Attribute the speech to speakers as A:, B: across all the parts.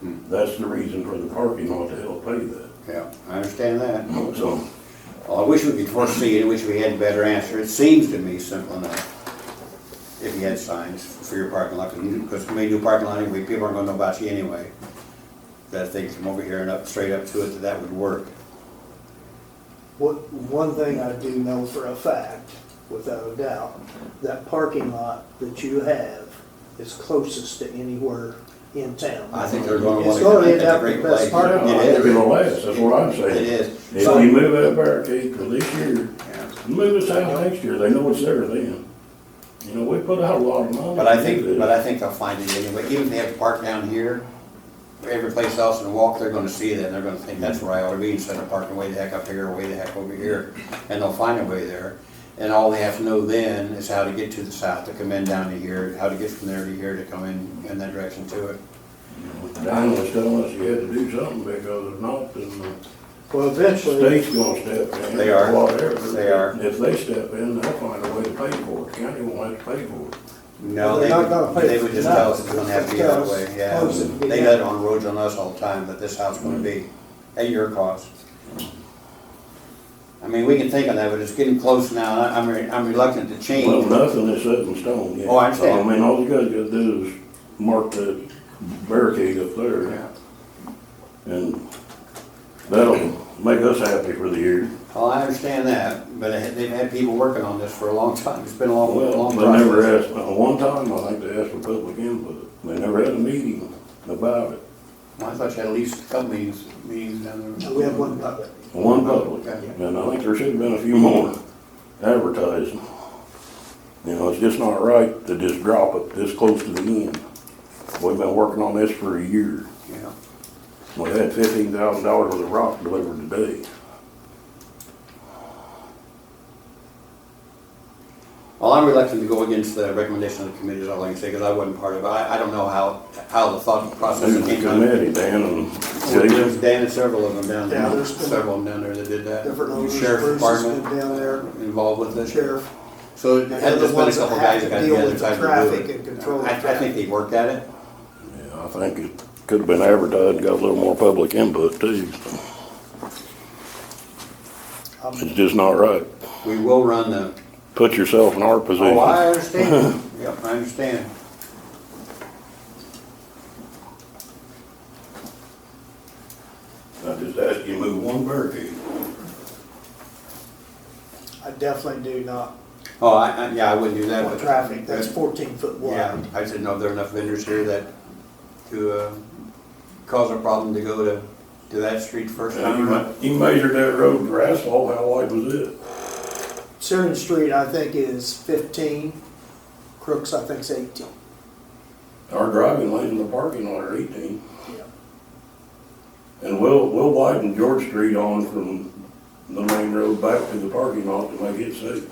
A: That's the reason for the parking, what the hell pay that,
B: Yeah, I understand that.
A: so.
B: I wish we could foresee it, I wish we had a better answer. It seems to me simple enough. If you had signs for your parking lot, because when we do parking lot anyway, people aren't gonna know about you anyway. That if they come over here and up, straight up to it, that that would work.
C: What, one thing I do know for a fact, without a doubt, that parking lot that you have is closest to anywhere in town.
B: I think they're gonna wanna.
C: It's gonna end
B: it's a
C: up
B: great
C: the best
B: place.
C: parking lot.
B: It
A: It's
B: is.
A: gonna last, that's what I'm
B: It
A: saying.
B: is.
A: If we move that barricade for this year,
B: Yeah.
A: move us out next year, they know it's there then. You know, we put out a lot of money.
B: But I think, but I think they'll find it anyway, even if they have to park down here, every place else and walk, they're gonna see that, and they're gonna think that's where I ought to be, instead of parking way the heck up here, or way the heck over here, and they'll find a way there. And all they have to know then is how to get to the south, to come in down to here, how to get from there to here, to come in, in that direction to it.
A: Don was telling us you had to do something because if not, then
C: Well,
A: the
C: eventually,
A: state's gonna step in.
B: They are.
A: or Whatever.
B: They are.
A: If they step in, they'll find a way to pay for it, the county won't have to pay for it.
B: No,
C: They're
B: they
C: not gonna
B: would,
C: pay
B: they
C: for
B: would just
C: that.
B: tell us it's gonna have to be that
C: Because
B: way, yeah.
C: close it,
B: They
C: yeah.
B: let it on roads on us all the time, that this house gonna be, at your cost. I mean, we can think on that, but it's getting close now, and I- I'm, re- I'm reluctant to
A: Well,
B: change.
A: nothing is set in stone yet.
B: Oh, I
A: So,
B: understand.
A: I mean, all you guys gotta do is mark the barricade up
B: Yeah.
A: there, and that'll make us happy for the year.
B: Well, Oh, I understand that, but it- they've had people working on this for a long time, it's been a long,
A: Well,
B: long
A: they never
B: process.
A: asked, uh, one time, I think they asked for public input, they never had a meeting about it,
B: Well, I thought you had at least a couple meetings, meetings down there.
C: we have one public.
A: one public.
B: Okay.
A: And I think there should have been a few more advertised. You know, it's just not right to just drop it this close to the end. We've been working on this for a year.
B: Yeah.
A: We had fifteen thousand dollars worth of rock delivered today.
B: Well, I'm reluctant to go against the recommendation of the committee, is all I can say, because I wasn't part of it, I, I don't know how, how the thought process
A: There's
B: came
A: the
B: out.
A: committee, Dan and
B: Well, There's
A: Jason.
B: Dan and several of them down
C: Yeah,
B: there,
C: there's been
B: several of them down there that did that.
C: Different owners,
B: Sheriff's
C: Bruce has been
B: Department
C: down there,
B: involved with
C: the
B: this.
C: sheriff.
B: So it
C: And
B: had
C: they're
B: just
C: the
B: been a
C: ones that
B: couple
C: have
B: guys
C: to
B: that got
C: deal
B: together and
C: with the
B: tried to
C: traffic
B: do
C: and
B: it.
C: control the
B: I, I think
C: traffic.
B: they worked at it.
A: Yeah, I think it could have been advertised, got a little more public input too.
C: um,
A: It's just not right.
B: We will run the,
A: Put yourself in our position.
B: oh, I understand, yep, I understand.
A: I just asked you to move one barricade.
C: I definitely do not
B: Oh, I, I, yeah, I wouldn't do that,
C: want
B: but.
C: traffic that's fourteen foot
B: Yeah,
C: wide.
B: I just didn't know if there were enough vendors here that, to, uh, cause a problem to go to, to that street first
A: Now, you
B: time.
A: me- You measured that road for asphalt, how wide was it?
C: Syrian Street, I think, is fifteen, Crooks, I think's eighteen.
A: Our driving lane and the parking lot are eighteen.
C: Yeah.
A: And we'll, we'll widen George Street on from the main road back to the parking lot to make it safe.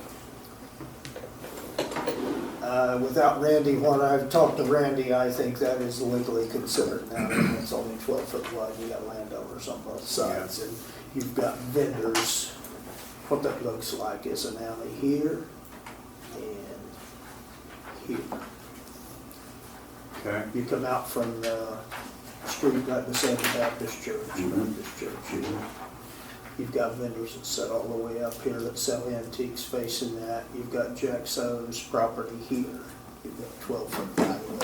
C: Uh, Without Randy, when I've talked to Randy, I think that is legally considered now, and it's only twelve foot wide, you got landowners on both sides, and you've got vendors. What that looks like is an alley here and here.
B: Okay.
C: You come out from the street right beside the Baptist church, Baptist church. You've got vendors that sit all the way up here that sell antiques facing that. You've got Jack So's property here. You've got twelve foot driveway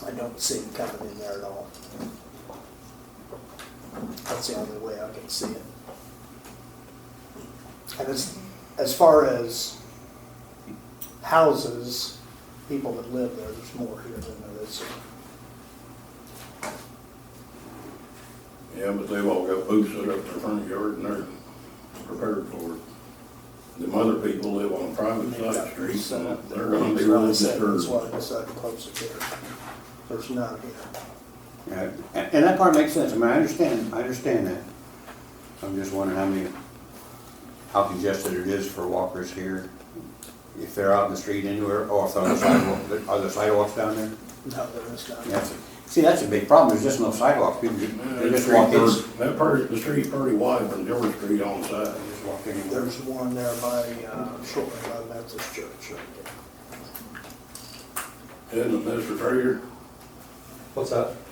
C: there. I don't see them coming in there at all. That's the only way I can see it. And as, as far as houses, people that live there, there's more here than there is.
A: Yeah, but they've all got booths set up in their front yard and they're prepared for it. Them other people live on private side streets and they're gonna be really
C: That's
A: disturbed.
C: why I decided to close it there. There's none here.
B: Right, Uh, and, and that part makes sense, I mean, I understand, I understand that. I'm just wondering how many, how congested it is for walkers here, if they're out in the street anywhere, or if they're on the sidewalk, are there sidewalks down there?
C: No, there is none.
B: That's, see, that's a big problem, there's just no sidewalks, people, ju- they just walk in.
A: That part, the street's pretty wide from George Street on the side.
B: Just walk in.
C: There's one there by, uh, shortly by Methodist Church right there.
A: Isn't it, Mr. Trader?
D: What's that?